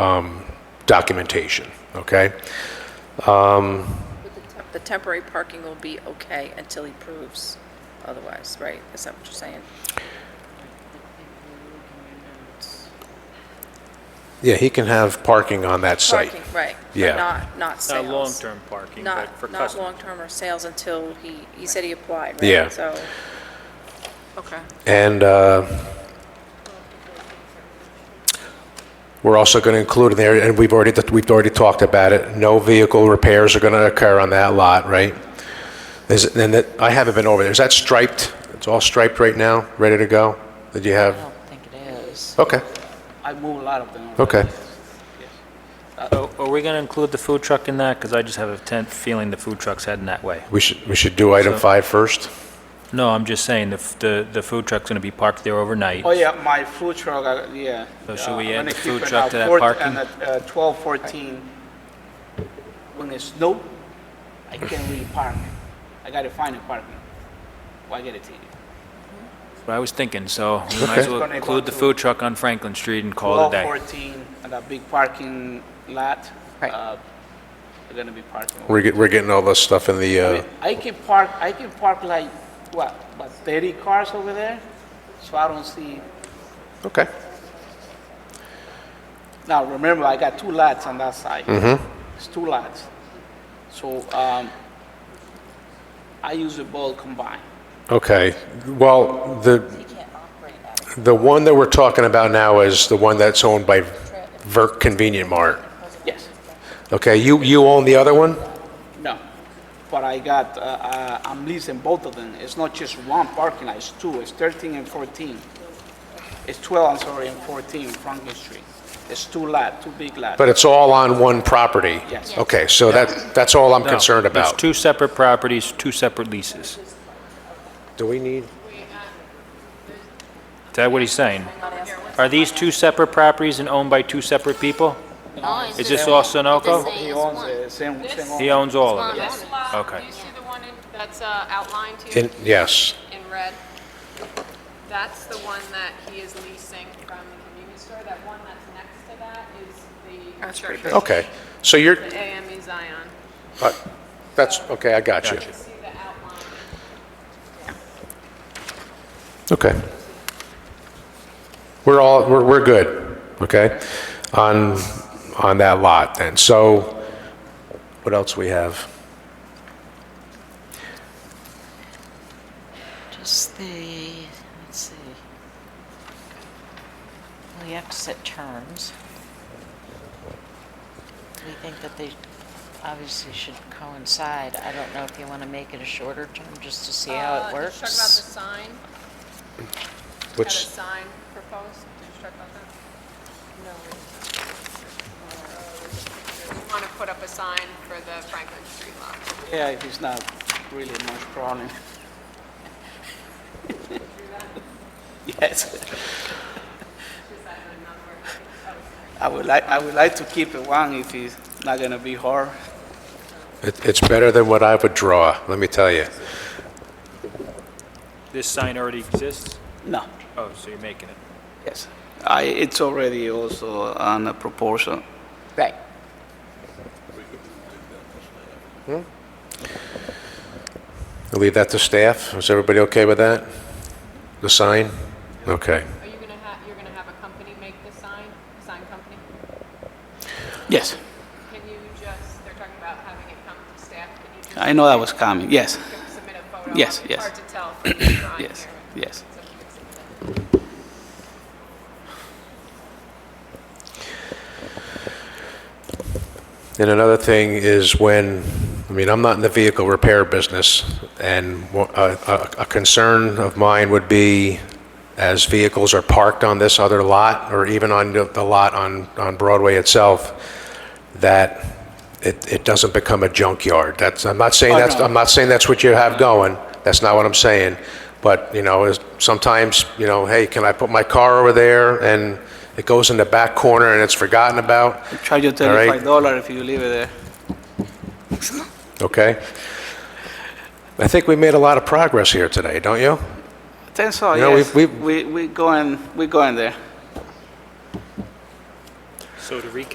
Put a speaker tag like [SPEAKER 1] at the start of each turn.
[SPEAKER 1] um, documentation, okay?
[SPEAKER 2] The temporary parking will be okay until he proves otherwise, right? Is that what you're saying?
[SPEAKER 1] Yeah, he can have parking on that site.
[SPEAKER 2] Parking, right. but
[SPEAKER 1] Yeah.
[SPEAKER 2] Not, not sales.
[SPEAKER 3] Not Uh, long-term parking, but for
[SPEAKER 2] Not, not
[SPEAKER 3] customers.
[SPEAKER 2] long-term or sales until he, he said he applied, right?
[SPEAKER 1] Yeah.
[SPEAKER 2] So, okay.
[SPEAKER 1] And uh, we're also going to include in there, and we've already, we've already talked about it, no vehicle repairs are going to occur on that lot, right? Is, it- and that, I haven't been over there, is that striped? It's all striped right now, ready to go? Did you
[SPEAKER 4] I
[SPEAKER 1] have?
[SPEAKER 4] don't think it is.
[SPEAKER 1] Okay,
[SPEAKER 4] I move a lot of them.
[SPEAKER 1] okay.
[SPEAKER 3] So Uh, oh, Are we going to include the food truck in that? Because I just have a tent feeling the food truck's heading that way.
[SPEAKER 1] We should, we should do item five first?
[SPEAKER 3] No, I'm just saying, the, f- the, the food truck's going to be parked there overnight.
[SPEAKER 5] Oh, yeah, my food truck, uh, yeah.
[SPEAKER 3] So should we
[SPEAKER 5] Uh,
[SPEAKER 3] add
[SPEAKER 5] when
[SPEAKER 3] the
[SPEAKER 5] it
[SPEAKER 3] food
[SPEAKER 5] keep it
[SPEAKER 3] truck
[SPEAKER 5] out
[SPEAKER 3] to that
[SPEAKER 5] fourth
[SPEAKER 3] parking?
[SPEAKER 5] And at uh, 12, 14, when it snow, I can't really park. I gotta find a parking. Well, I gotta take it.
[SPEAKER 3] But I was thinking, so we might as well
[SPEAKER 5] Okay.
[SPEAKER 3] include the food truck on Franklin Street and call it a day.
[SPEAKER 5] 12, 14, and a big parking lot,
[SPEAKER 4] Right.
[SPEAKER 5] uh, they're gonna be parking.
[SPEAKER 1] We're, get- we're getting all this stuff in the,
[SPEAKER 5] I
[SPEAKER 1] uh,
[SPEAKER 5] mean, I can park, I can park like, what, about 30 cars over there? So I don't see,
[SPEAKER 1] okay.
[SPEAKER 5] now remember, I got two lots on that side. It's two lots. So um, I use the both combined.
[SPEAKER 1] Okay, well, the, the one that we're talking about now is the one that's owned by Verk Convenient Mart.
[SPEAKER 5] Yes,
[SPEAKER 1] Okay, you, you own the other one?
[SPEAKER 5] no. But I got, uh, uh, I'm leasing both of them. It's not just one parking lot, it's two. It's 13 and 14. It's 12, I'm sorry, and 14 Franklin Street. It's two lot, two big lot.
[SPEAKER 1] But it's all on one property?
[SPEAKER 5] Yes.
[SPEAKER 1] Okay, so that, that's all I'm
[SPEAKER 3] No,
[SPEAKER 1] concerned
[SPEAKER 3] It's
[SPEAKER 1] about.
[SPEAKER 3] two separate properties, two separate leases. Is
[SPEAKER 1] Do we need?
[SPEAKER 3] that what he's saying? Are these two separate properties and owned by two separate people? Is this all Sunoco?
[SPEAKER 5] He owns the same, same owner.
[SPEAKER 3] He owns all of it?
[SPEAKER 6] This lot,
[SPEAKER 3] Okay.
[SPEAKER 6] do you see the one in- that's uh, outlined to you
[SPEAKER 1] in- Yes,
[SPEAKER 6] in red? That's the one that he is leasing from the convenience store. That one that's next to that is the
[SPEAKER 2] That's pretty
[SPEAKER 6] church.
[SPEAKER 1] okay. So you're,
[SPEAKER 6] The AME E Zion.
[SPEAKER 1] uh, that's, okay, I got you.
[SPEAKER 6] You see the outline?
[SPEAKER 1] Okay. We're all, we're, we're good, okay? On, on that lot then. So what else we have?
[SPEAKER 4] Just the, let's see. We have to set terms. We think that they obviously should coincide. I don't know if you want to make it a shorter term, just to see how it
[SPEAKER 6] Uh, Did you talk about the
[SPEAKER 4] works.
[SPEAKER 6] sign? Had a
[SPEAKER 1] Which,
[SPEAKER 6] sign proposed? Did you talk about that? No. Want to put up a sign for the Franklin Street lot?
[SPEAKER 5] Yeah, it's not really much problem. Yes,
[SPEAKER 6] Is that oh, a number?
[SPEAKER 5] I would like, I would like to keep it one if it's not gonna be hard.
[SPEAKER 1] it- it's better than what I would draw, let me tell you.
[SPEAKER 3] This sign already exists?
[SPEAKER 5] No,
[SPEAKER 3] Oh, so you're making it.
[SPEAKER 5] yes. I, it's already also on a proportion.
[SPEAKER 4] Right.
[SPEAKER 1] I'll Leave that to staff. Is everybody okay with that? The sign? Okay.
[SPEAKER 6] Are you gonna have, you're gonna have a company make the sign, sign company?
[SPEAKER 5] Yes,
[SPEAKER 6] Can you just, they're talking about having it come to staff, can you just?
[SPEAKER 5] I know that was coming, yes,
[SPEAKER 6] Submit a photo?
[SPEAKER 5] Yes,
[SPEAKER 6] It's
[SPEAKER 5] yes.
[SPEAKER 6] Hard to tell from the drawing
[SPEAKER 5] yes,
[SPEAKER 6] here.
[SPEAKER 5] yes.
[SPEAKER 6] So if you could submit that.
[SPEAKER 1] And another thing is when, I mean, I'm not in the vehicle repair business, and wha- a a- a concern of mine would be, as vehicles are parked on this other lot, or even on the the lot on on Broadway itself, that it it doesn't become a junkyard. That's, I'm not saying
[SPEAKER 5] Oh,
[SPEAKER 1] that's,
[SPEAKER 5] no.
[SPEAKER 1] I'm not saying that's what you have going, that's not what I'm saying, but, you know, is- sometimes, you know, hey, can I put my car over there, and it goes in the back corner and it's forgotten about?
[SPEAKER 5] Charge you
[SPEAKER 1] All right.
[SPEAKER 5] thirty-five dollar if you leave it there.
[SPEAKER 1] Okay? I think we made a lot of progress here today, don't you?
[SPEAKER 5] I think so,
[SPEAKER 1] You know,
[SPEAKER 5] yes.
[SPEAKER 1] we've-
[SPEAKER 5] We, we going, we going there.
[SPEAKER 3] So to recap,